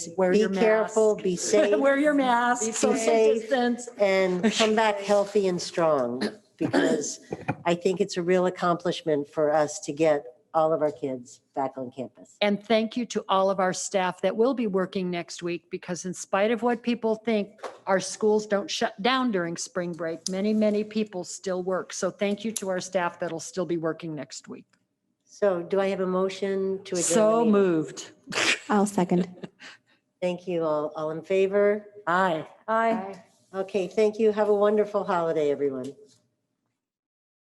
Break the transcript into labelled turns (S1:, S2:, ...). S1: Wear
S2: Be
S1: your mask.
S2: careful, be safe.
S1: Wear your mask,
S2: Be
S1: social
S2: safe.
S1: distance.
S2: and come back healthy and strong because I think it's a real accomplishment for us to get all of our kids back on campus.
S1: And thank you to all of our staff that will be working next week because in spite of what people think, our schools don't shut down during spring break. Many, many people still work. So thank you to our staff that'll still be working next week.
S2: So do I have a motion to adjourn? the
S1: So
S2: meeting?
S1: moved.
S3: I'll second.
S2: Thank you. All, all in favor? Aye.
S1: Aye.
S2: Okay, thank you. Have a wonderful holiday, everyone.